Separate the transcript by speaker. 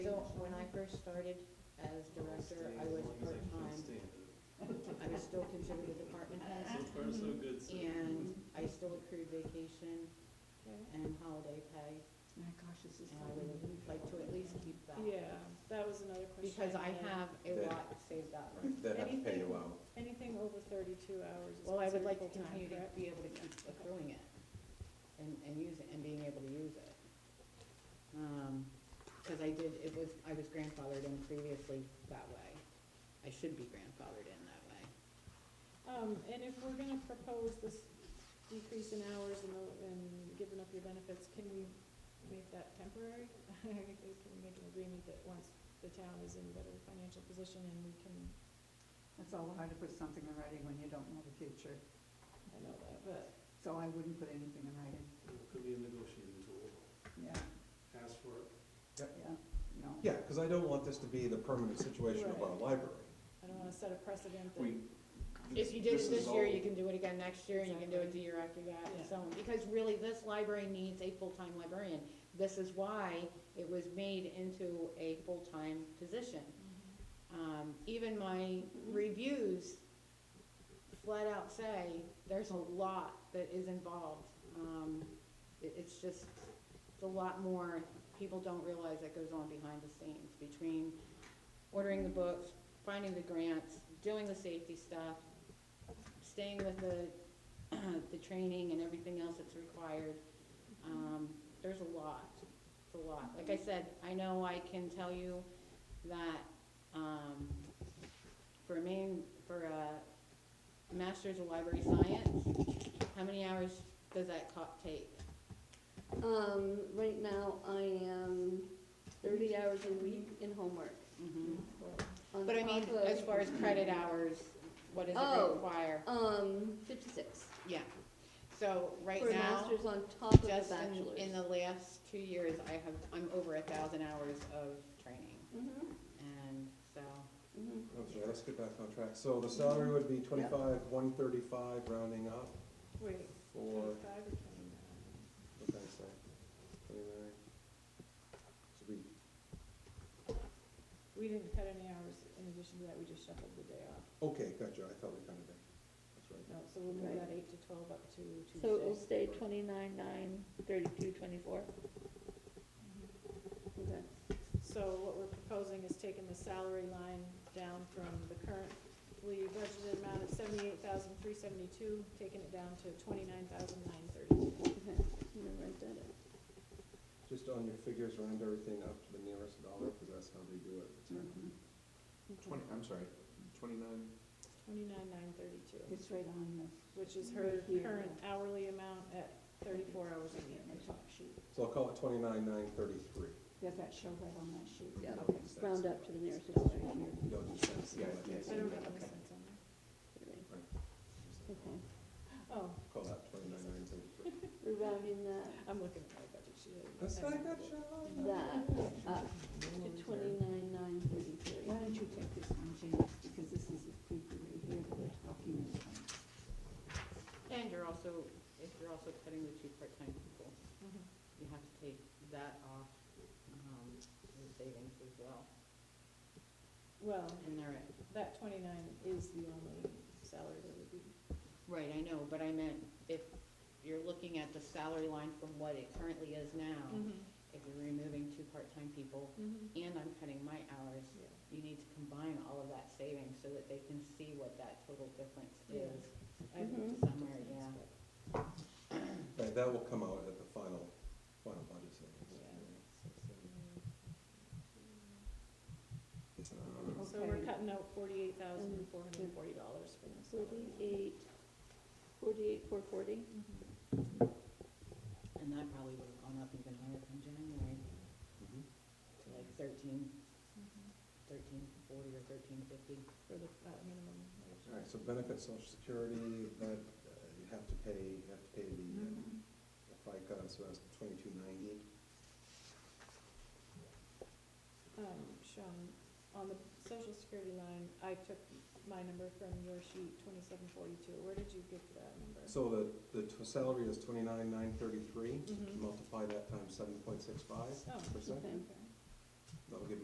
Speaker 1: first started as director, I was part-time. I was still considered a department head,
Speaker 2: So far, so good, so.
Speaker 1: and I still accrued vacation and holiday pay,
Speaker 3: My gosh, this is.
Speaker 1: and I would like to at least keep that.
Speaker 4: Yeah, that was another question.
Speaker 1: Because I
Speaker 4: had.
Speaker 1: have a lot saved up.
Speaker 5: They'd have to pay you
Speaker 4: Anything-
Speaker 5: out.
Speaker 4: Anything over thirty-two hours is
Speaker 1: Well, I would
Speaker 4: considered
Speaker 1: like to
Speaker 4: full-time,
Speaker 1: continue to
Speaker 4: correct?
Speaker 1: be able to keep accruing it and, and use it, and being able to use it. Um, cause I did, it was, I was grandfathered in previously that way. I should be grandfathered in that way.
Speaker 4: Um, and if we're gonna propose this decrease in hours and, the- and giving up your benefits, can we make that temporary? Can we make an agreement that once the town is in better financial position and we can,
Speaker 3: It's all hard to put something in writing when you don't know the future,
Speaker 4: I know that, but,
Speaker 3: so I wouldn't put anything in writing,
Speaker 2: It Could be a negotiating tool,
Speaker 3: yeah,
Speaker 2: ask for it.
Speaker 3: yeah, no.
Speaker 5: Yeah, because I don't want this to be the permanent situation of our
Speaker 4: Right.
Speaker 5: library.
Speaker 4: I don't wanna set a precedent that.
Speaker 5: We.
Speaker 1: If you did it this
Speaker 5: is
Speaker 1: year,
Speaker 5: all-
Speaker 1: you can do it again next year, and you can do it the
Speaker 4: Exactly.
Speaker 1: year after that, and
Speaker 4: Yeah.
Speaker 1: so on. Because really, this library needs a full-time librarian. This is why it was made into a full-time position. Um, even my reviews flat out say, there's a lot that is involved. Um, it, it's just, it's a lot more, people don't realize that goes on behind the scenes between ordering the books, finding the grants, doing the safety stuff, staying with the, the training and everything else that's required. Um, there's a lot, it's a lot. Like I said, I know I can tell you that, um, for a main, for a master's of library science, how many hours does that co- take?
Speaker 6: Um, right now, I am thirty hours a week in homework.
Speaker 1: Mhm.
Speaker 6: on
Speaker 1: But I mean,
Speaker 6: top of-
Speaker 1: as far as credit hours, what does it
Speaker 6: Oh.
Speaker 1: require?
Speaker 6: Um, fifty-six,
Speaker 1: Yeah, so right
Speaker 6: for a
Speaker 1: now,
Speaker 6: master's on top of a
Speaker 1: just in,
Speaker 6: bachelor's.
Speaker 1: in the last two years, I have, I'm over a thousand hours of training,
Speaker 6: Mhm,
Speaker 1: and so,
Speaker 6: mhm.
Speaker 5: I'm sorry, let's get back on track. So the salary would be twenty-five, one thirty-five, rounding up,
Speaker 4: Wait,
Speaker 5: for,
Speaker 4: twenty-five or twenty-nine?
Speaker 5: what did I say? Twenty-nine? So we,
Speaker 4: We didn't cut any hours in addition to that, we just shuffled the day off.
Speaker 5: okay, gotcha, I thought we kind of did. That's right.
Speaker 4: No, so we'll move
Speaker 6: Right.
Speaker 4: that eight to twelve up to Tuesday.
Speaker 6: So it will stay twenty-nine, nine, thirty-two, twenty-four?
Speaker 4: Mm-hmm.
Speaker 6: Okay.
Speaker 4: So what we're proposing is taking the salary line down from the currently budgeted amount of seventy-eight thousand, three seventy-two, taking it down to twenty-nine thousand, nine thirty-two.
Speaker 6: Okay, I'm gonna write that up.
Speaker 5: Just on your figures, round everything up to the nearest dollar, because that's how they do it.
Speaker 4: Mm-hmm.
Speaker 3: Mhm.
Speaker 5: Twenty, I'm sorry, twenty-nine?
Speaker 4: Twenty-nine, nine thirty-two,
Speaker 3: It's right on the.
Speaker 4: which is her
Speaker 3: Right here.
Speaker 4: current hourly amount at thirty-four hours a
Speaker 3: In the
Speaker 4: week.
Speaker 3: top sheet,
Speaker 5: So I'll call it twenty-nine, nine thirty-three.
Speaker 3: does that show right on that sheet?
Speaker 6: Yeah.
Speaker 3: Okay.
Speaker 6: Round up to the nearest dollar here.
Speaker 5: You don't just have to see what it is.
Speaker 4: I don't have any cents on
Speaker 6: Okay,
Speaker 4: there. Oh,
Speaker 5: Call that twenty-nine, nine thirty-three.
Speaker 6: we're rounding that,
Speaker 4: I'm looking at my budget sheet.
Speaker 5: That's not a good
Speaker 6: that up to twenty-nine, nine,
Speaker 3: Why
Speaker 6: thirty-three.
Speaker 3: don't you take this one, James, because this is the creepy right here that we're talking about.
Speaker 1: and you're also, if you're also cutting the two part-time people, you have to take that off, um, in savings as well,
Speaker 4: Well,
Speaker 1: and they're at
Speaker 4: that twenty-nine is the only salary that would be
Speaker 1: Right, I know, but I meant if you're looking at the salary line from what it currently is now,
Speaker 4: Mm-hmm.
Speaker 1: if you're removing two part-time people and I'm cutting my hours,
Speaker 4: Yeah.
Speaker 1: you need to combine all of that savings so that they can see what that total difference
Speaker 4: Yeah.
Speaker 1: is
Speaker 4: Mm-hmm. I looked at
Speaker 6: Mhm.
Speaker 1: somewhere,
Speaker 4: things,
Speaker 1: yeah.
Speaker 4: but-
Speaker 5: Right, that will come out at the final, final budget savings. Um,
Speaker 4: So we're
Speaker 3: Okay.
Speaker 4: cutting out forty-eight thousand, four hundred and forty dollars from the salary.
Speaker 6: Forty-eight, forty-eight, four forty.
Speaker 4: Mm-hmm.
Speaker 1: And that probably would have gone up even higher from January,
Speaker 5: mhm.
Speaker 1: to like thirteen, thirteen forty or thirteen fifty.
Speaker 4: For the, uh, minimum wage.
Speaker 5: All right, so benefits, social security, that, uh, you have to pay, you have to pay the uh, FICA, so that's twenty-two ninety.
Speaker 4: Um, Sean, on the social security line, I took my number from your sheet, twenty-seven forty-two, where did you get that number?
Speaker 5: So the, the t- salary is twenty-nine, nine thirty-three,
Speaker 4: Mhm.
Speaker 5: multiply that times seven point six five
Speaker 4: Oh,
Speaker 5: percent,
Speaker 4: okay.
Speaker 5: that'll give you